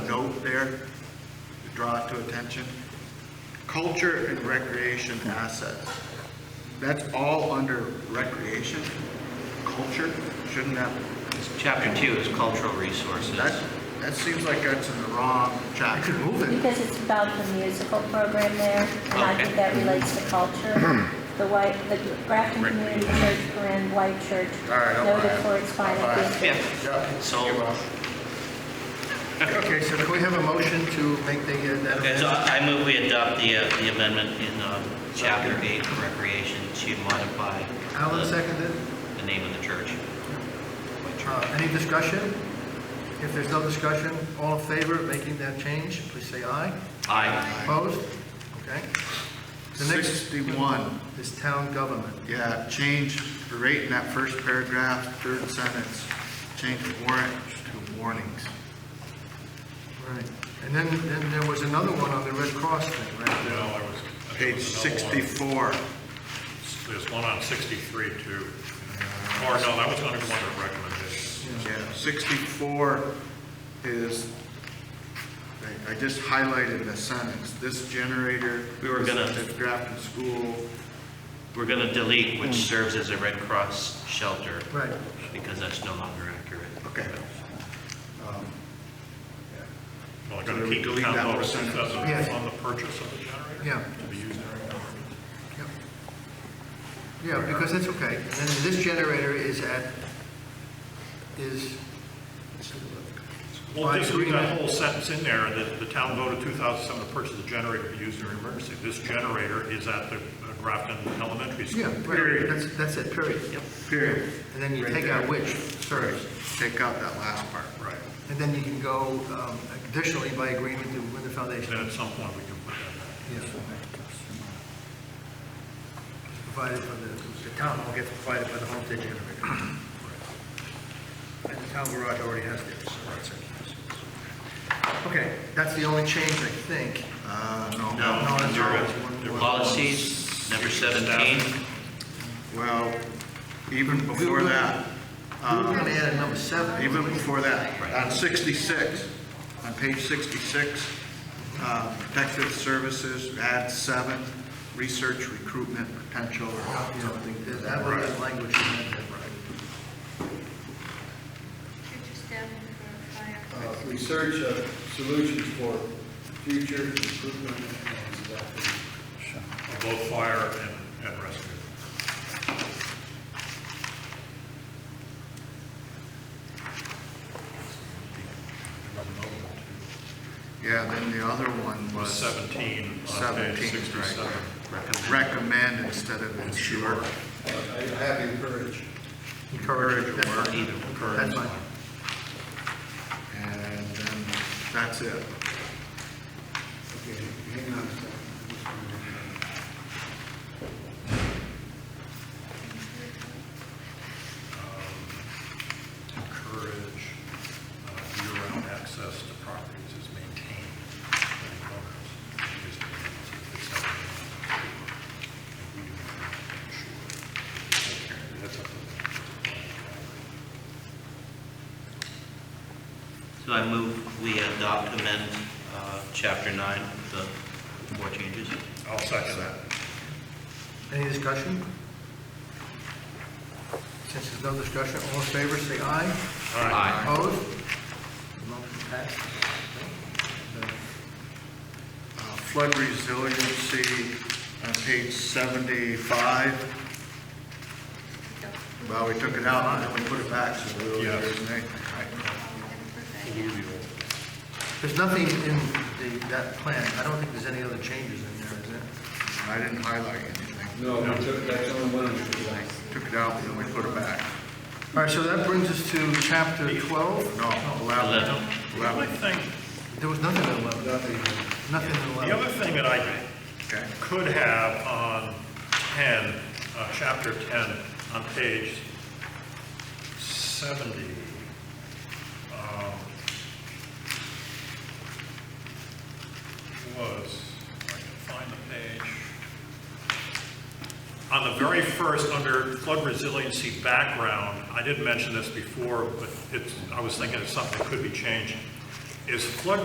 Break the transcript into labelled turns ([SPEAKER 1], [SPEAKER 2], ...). [SPEAKER 1] here, draw it to attention. Culture and recreation assets. That's all under recreation, culture, shouldn't that,
[SPEAKER 2] Chapter two is cultural resources.
[SPEAKER 1] that, that seems like that's in the wrong chapter. Move it.
[SPEAKER 3] Because it's about the musical program there, and I
[SPEAKER 2] Okay.
[SPEAKER 3] think that relates to culture. The white, the Grafton Community Church, Corinne White Church,
[SPEAKER 1] All right, I'll buy
[SPEAKER 3] noted
[SPEAKER 1] it.
[SPEAKER 3] for its fine
[SPEAKER 1] I'll buy it.
[SPEAKER 3] acoustics.
[SPEAKER 2] Yeah,
[SPEAKER 1] Yeah.
[SPEAKER 2] So-
[SPEAKER 1] You're welcome. Okay, so can we have a motion to make the, uh, that
[SPEAKER 2] Okay, so
[SPEAKER 1] amendment?
[SPEAKER 2] I I move we adopt the, uh, the amendment in, um, chapter eight for recreation to modify
[SPEAKER 1] Alan
[SPEAKER 2] the,
[SPEAKER 1] seconded.
[SPEAKER 2] the name of the church.
[SPEAKER 1] Uh, Any discussion? If there's no discussion, all in favor of making that change, please say aye.
[SPEAKER 2] Aye.
[SPEAKER 1] Opposed? Okay. The next
[SPEAKER 4] 61,
[SPEAKER 1] is town government.
[SPEAKER 4] yeah, change the rate in that first paragraph, third sentence, change warrant to warnings.
[SPEAKER 1] Right. And then, then there was another one on the Red Cross thing, right?
[SPEAKER 5] No, I was. I
[SPEAKER 4] Page
[SPEAKER 5] think it was another one.
[SPEAKER 4] 64,
[SPEAKER 5] There's one on 63 too. Or no, that was under one of the recommendations.
[SPEAKER 4] yeah, 64 is, I- I just highlighted a sentence, this generator.
[SPEAKER 2] We were gonna-
[SPEAKER 4] At Grafton School,
[SPEAKER 2] We're gonna delete which serves as a Red Cross shelter.
[SPEAKER 1] Right.
[SPEAKER 2] Because that's no longer accurate.
[SPEAKER 4] okay.
[SPEAKER 5] Well, they're
[SPEAKER 4] So we
[SPEAKER 5] going to keep the
[SPEAKER 4] delete that
[SPEAKER 5] town vote
[SPEAKER 4] whole
[SPEAKER 5] of
[SPEAKER 4] sentence.
[SPEAKER 5] 2000
[SPEAKER 1] Yeah.
[SPEAKER 5] on the purchase of the generator.
[SPEAKER 1] Yeah.
[SPEAKER 5] To be used in our government.
[SPEAKER 1] Yep. Yeah, because that's okay. And then this generator is at, is,
[SPEAKER 5] Well,
[SPEAKER 1] I
[SPEAKER 5] just
[SPEAKER 1] agree
[SPEAKER 5] read that
[SPEAKER 1] that-
[SPEAKER 5] whole sentence in there, that the town voted 2007 to purchase a generator to be used in an emergency. This generator is at the uh, Grafton Elementary School.
[SPEAKER 1] yeah, right, that's, that's it, period.
[SPEAKER 4] Period.
[SPEAKER 1] And then you
[SPEAKER 4] Right
[SPEAKER 1] take out
[SPEAKER 4] there.
[SPEAKER 1] which
[SPEAKER 4] Sorry,
[SPEAKER 1] serves.
[SPEAKER 4] take out that last part.
[SPEAKER 5] Right.
[SPEAKER 1] And then you can go um, additionally by agreement to with the foundation.
[SPEAKER 5] Then at some point, we can put that
[SPEAKER 1] Yes. Provided by the, the town will get provided by the homestead generator. And the town garage already has theirs. Okay, that's the only change, I think.
[SPEAKER 4] Uh, no.
[SPEAKER 2] No,
[SPEAKER 1] No, that's
[SPEAKER 2] under
[SPEAKER 1] all. There
[SPEAKER 2] uh, policies, number seventeen,
[SPEAKER 4] Well, even before
[SPEAKER 1] were-
[SPEAKER 4] that.
[SPEAKER 1] We were
[SPEAKER 4] um,
[SPEAKER 1] gonna add a number seven.
[SPEAKER 4] Even before that, on 66, on page 66, uh, protective services, add seven, research recruitment potential or
[SPEAKER 1] Yeah,
[SPEAKER 4] something. to
[SPEAKER 1] there's
[SPEAKER 4] that.
[SPEAKER 1] that was the language in that,
[SPEAKER 6] Could you stand for fire?
[SPEAKER 7] Uh, research of solutions for future improvement and adaptation.
[SPEAKER 5] in, both fire and- and rescue.
[SPEAKER 4] Yeah, then the other one
[SPEAKER 5] Was
[SPEAKER 4] was
[SPEAKER 5] 17 on page
[SPEAKER 4] 17, right.
[SPEAKER 5] 67.
[SPEAKER 4] recommend instead of ensure.
[SPEAKER 7] Uh, I have encouraged.
[SPEAKER 1] Encourage
[SPEAKER 4] or
[SPEAKER 1] that's fine.
[SPEAKER 2] either.
[SPEAKER 1] That's fine.
[SPEAKER 4] And then that's it.
[SPEAKER 7] Okay, hang on a second. I just wanna make sure.
[SPEAKER 5] encourage uh, year-round access to properties is maintained by the owners. Just to it's something that we do ensure. That's up to them.
[SPEAKER 2] so I move we adopt amend, uh, chapter nine, the four changes.
[SPEAKER 5] I'll second that.
[SPEAKER 1] Any discussion? Since there's no discussion, all in favor, say aye.
[SPEAKER 5] All right.
[SPEAKER 2] Aye.
[SPEAKER 1] Opposed? Motion passed.
[SPEAKER 4] Uh, Flood resiliency on page 75. Well, we took it out and then we put it back, so there really
[SPEAKER 5] Yes.
[SPEAKER 4] isn't anything.
[SPEAKER 1] There's nothing in the, that plan, I don't think there's any other changes in there, is there?
[SPEAKER 4] I didn't highlight anything.
[SPEAKER 7] No, we took, that's the only one we took out.
[SPEAKER 4] Took it out, and then we put it back.
[SPEAKER 1] All right, so that brings us to chapter 12.
[SPEAKER 4] No,
[SPEAKER 2] Eleven.
[SPEAKER 4] 11.
[SPEAKER 5] The only
[SPEAKER 4] 11,
[SPEAKER 5] thing,
[SPEAKER 1] There was nothing in 11,
[SPEAKER 7] Nothing.
[SPEAKER 1] nothing in
[SPEAKER 5] the
[SPEAKER 1] 11.
[SPEAKER 5] other thing that I
[SPEAKER 4] okay.
[SPEAKER 5] could have on 10, uh, chapter 10, on page 70. um, Was, if I can find the page. On the very first, under flood resiliency background, I didn't mention this before, but it's, I was thinking of something that could be changed, is flood